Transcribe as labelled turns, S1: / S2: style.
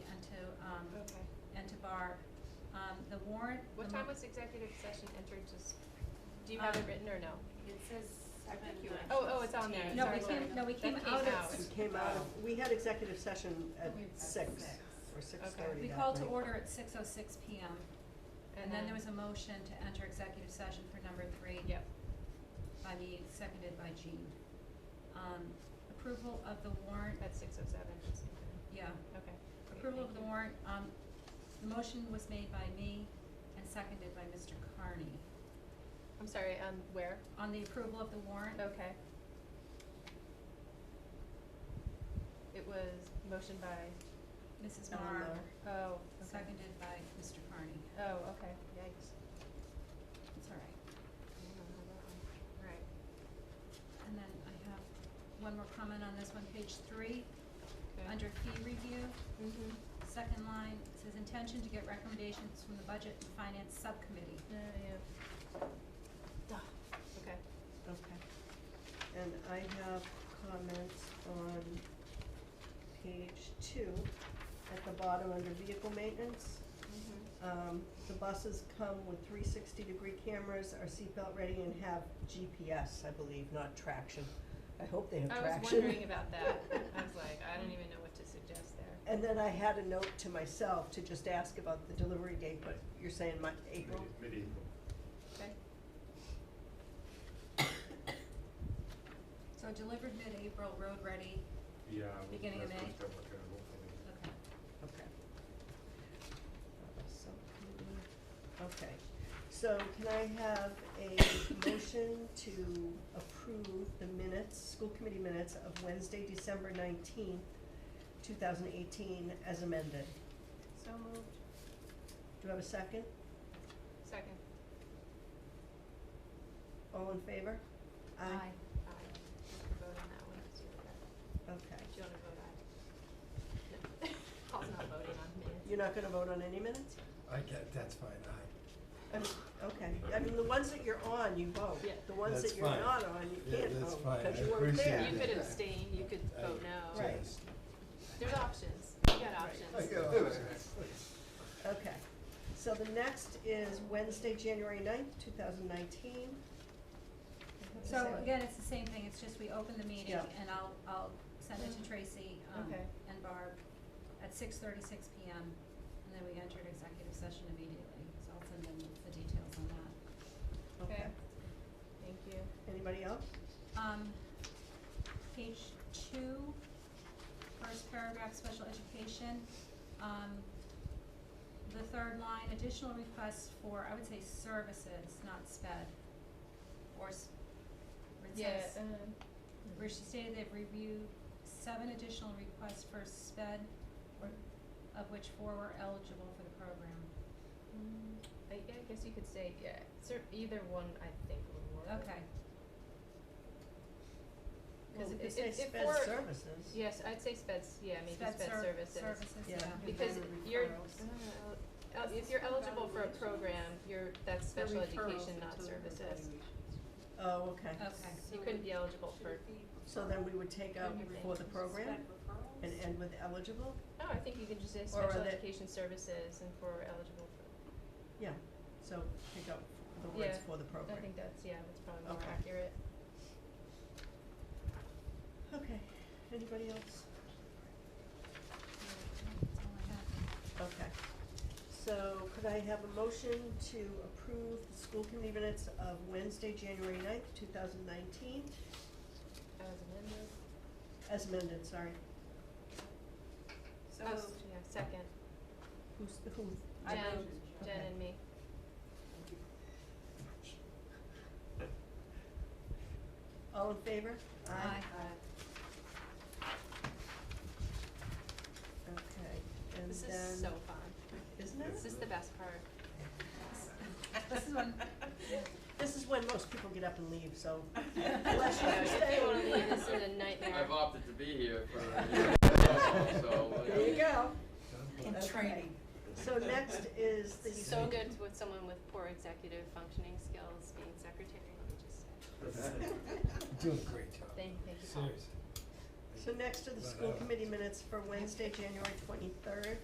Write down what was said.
S1: are, um, the warrant.
S2: What
S1: the
S2: time
S1: mo-
S2: was executive session entered, just, do you have it
S1: Um,
S2: written or no?
S3: It says
S4: I
S3: seven.
S4: think you
S3: nine.
S2: Oh, oh, it's on there,
S1: No,
S2: sorry,
S1: we
S2: sorry.
S1: came, no, we
S2: That
S1: came out at,
S2: out.
S5: We came out of, we had executive session at
S3: We- at
S5: six
S3: six.
S5: or six
S2: Okay.
S5: thirty
S1: we
S5: that
S1: called to
S5: night.
S1: order at six oh six P M. And then there was a motion to enter executive session for number three.
S2: Yep,
S1: By me, seconded by Jean. Um, approval of the warrant,
S2: at six oh seven, just,
S1: yeah,
S2: okay. great,
S1: approval of
S2: thank
S1: the
S2: you.
S1: warrant, um, the motion was made by me and seconded by Mr. Carney.
S2: I'm sorry, um, where?
S1: On the approval of the warrant,
S2: Okay. It was motion by,
S1: Mrs.
S5: Ellen
S1: Mar,
S5: Miller.
S2: oh, okay.
S1: seconded by Mr. Carney.
S2: Oh, okay, yikes.
S1: It's all right.
S2: I don't know that one. Right.
S1: And then I have one more comment on this one, page three,
S2: Okay.
S1: under fee review,
S2: Mhm.
S1: second line, it says intention to get recommendations from the budget and finance subcommittee.
S2: Uh, yeah. Duh, okay.
S5: Okay. And I have comments on page two, at the bottom under vehicle maintenance.
S2: Mhm.
S5: Um, the buses come with three sixty degree cameras, are seatbelt ready and have GPS, I believe, not traction. I hope they have
S2: I
S5: traction.
S2: was wondering about that. I was like, I don't even know what to suggest there.
S5: And then I had a note to myself to just ask about the delivery date, but you're saying my, April?
S4: Mid- Mid-April.
S2: Okay.
S1: So delivered mid-April, road ready,
S4: Yeah.
S1: Beginning of May?
S4: um, That's what we're gonna look for.
S1: okay.
S5: Okay. Uh, subcommittee. Okay, so can I have a motion to approve the minutes, school committee minutes of Wednesday, December nineteenth, two thousand eighteen, as amended?
S2: So moved.
S5: Do you have a second?
S2: Second.
S5: All in favor?
S2: Aye. You can vote on that one, 'cause you were there.
S5: Okay,
S2: Do you wanna vote aye? No. Paul's not voting on minutes.
S5: you're not gonna vote on any minutes?
S6: I get, that's fine, aye.
S5: I mean, okay, I mean, the ones that you're on, you vote.
S2: Yeah.
S5: The ones that
S6: That's
S5: you're
S6: fine.
S5: not on, you
S6: Yeah,
S5: can't
S6: that's
S5: vote,
S6: fine.
S5: because
S6: I
S5: you weren't
S6: appreciate
S5: there.
S2: You could
S6: Yeah.
S2: abstain, you could
S6: I
S2: vote no.
S5: Right.
S6: just-
S2: There's options. You got options.
S6: I get all this.
S5: Okay, so the next is Wednesday, January ninth, two thousand nineteen.
S1: So again, it's the same thing, it's just we open the meeting
S5: Yeah.
S1: and I'll, I'll send it to Tracy, um,
S2: Okay.
S1: and Barb at six thirty-six P M. And then we entered executive session immediately, so I'll send them the details on that.
S2: Okay. Thank you.
S5: Anybody else?
S1: Um, page two, first paragraph, special education, um, the third line, additional requests for, I would say services, not sped. Or s- where it
S2: Yeah,
S1: says-
S2: um,
S1: where she stated they've reviewed seven additional requests for sped, or, of which four were eligible for the program.
S2: mm, I, yeah, I guess you could say, yeah, cer- either one, I think would work.
S1: Okay,
S5: Well,
S2: 'Cause
S5: if
S2: if-
S5: we say
S2: if- if
S5: sped
S2: we're-
S5: services.
S2: Yes, I'd say speds, yeah, maybe
S1: sped
S2: sped
S1: ser-
S2: services.
S1: services, yeah.
S5: Yeah.
S2: Because
S5: Environment
S2: you're,
S5: referrals.
S2: uh, el- if you're eligible for a program, you're, that's special education, not services.
S5: Oh, okay.
S1: Okay.
S2: You couldn't be eligible for,
S5: So then we would take out
S2: Everything.
S5: for the program and end with eligible?
S2: no, oh, I think you can just say
S5: Or are
S2: special
S5: they-
S2: education services and for eligible for,
S5: Yeah, so take out the words
S2: Yeah,
S5: for the program.
S2: I think that's, yeah, that's probably more
S5: Okay.
S2: accurate.
S5: Okay, anybody else?
S1: That's all I have.
S5: Okay. So could I have a motion to approve the school committee minutes of Wednesday, January ninth, two thousand nineteen,
S2: As amended.
S5: as amended, sorry.
S3: So
S2: Oh,
S3: moved.
S2: yeah, second,
S5: Who's, who?
S2: Jen,
S5: Okay.
S2: Jen and me,
S5: All in favor?
S1: Aye.
S5: Okay, and
S2: this
S5: then,
S2: is so fun,
S5: isn't it?
S2: this is the best part.
S1: This is when, yeah.
S5: This is when most people get up and leave, so
S2: Oh, You know, if you wanna leave, this is a nightmare.
S7: I've opted to be here for a year, so, uh,
S5: there you go.
S6: Done.
S5: Okay.
S3: training.
S5: So next is the.
S2: This is so good with someone with poor executive functioning skills being secretary, let me just say.
S6: Doing a great job.
S2: Thank- thank you, Paul.
S6: Seriously.
S5: So next are the
S6: But,
S5: school
S6: uh,
S5: committee minutes for Wednesday, January twenty-third.